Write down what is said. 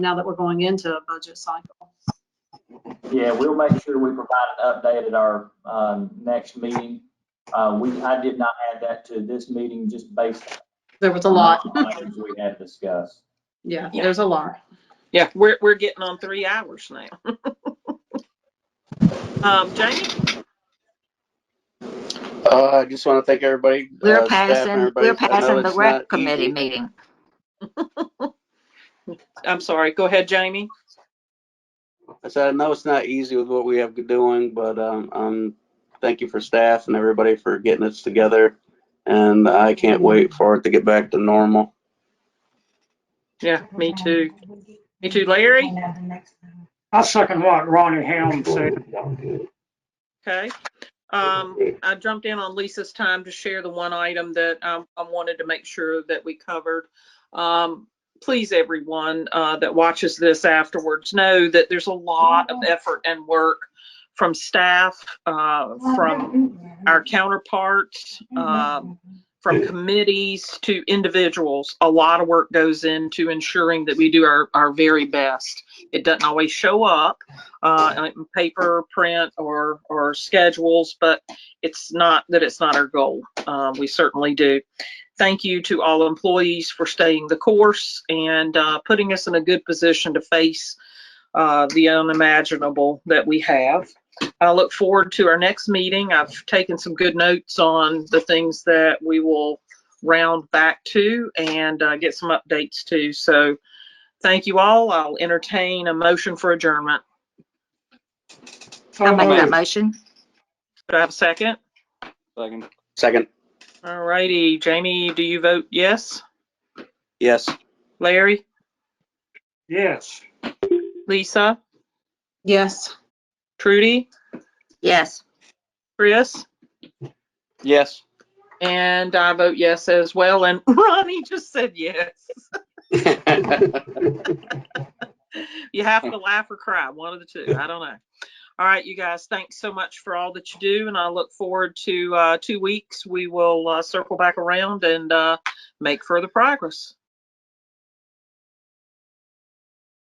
now that we're going into a budget cycle. Yeah, we'll make sure we provide an update at our um, next meeting. Uh, We, I did not add that to this meeting just based. There was a lot. on the items We had discussed. Yeah, Yeah. there's a lot. Yeah, we're, we're getting on three hours now. Um, Jamie, Uh, I just want to thank everybody. We're uh, staff and passing, everybody. we're I know passing the it's not rec committee easy. meeting. I'm sorry, go ahead, Jamie. I said, I know it's not easy with what we have doing, but, um, um, thank you for staff and everybody for getting us together. And I can't wait for it to get back to normal. Yeah, me too. Me too, Larry. I second what Ronnie Helm said. Okay. Um, I jumped in on Lisa's time to share the one item that um, I wanted to make sure that we covered. Um, please, everyone uh, that watches this afterwards, know that there's a lot of effort and work from staff, uh, from our counterparts, um, from committees to individuals. A lot of work goes into ensuring that we do our, our very best. It doesn't always show up uh, in paper, print, or, or schedules, but it's not that it's not our goal. Um, we certainly do. Thank you to all employees for staying the course and uh, putting us in a good position to face uh, the unimaginable that we have. I look forward to our next meeting. I've taken some good notes on the things that we will round back to and uh, get some updates to. So thank you all. I'll entertain a motion for adjournment. I'll make that motion. Do I have a second? Second. Second, All righty. Jamie, do you vote yes? yes. Larry? Yes. Lisa? Yes. Trudy? Yes. Chris? Yes. And I vote yes as well. And Ronnie just said yes. You have to laugh or cry, one of the two. I don't know. All right, you guys, thanks so much for all that you do. And I look forward to uh, two weeks. We will uh, circle back around and uh, make further progress.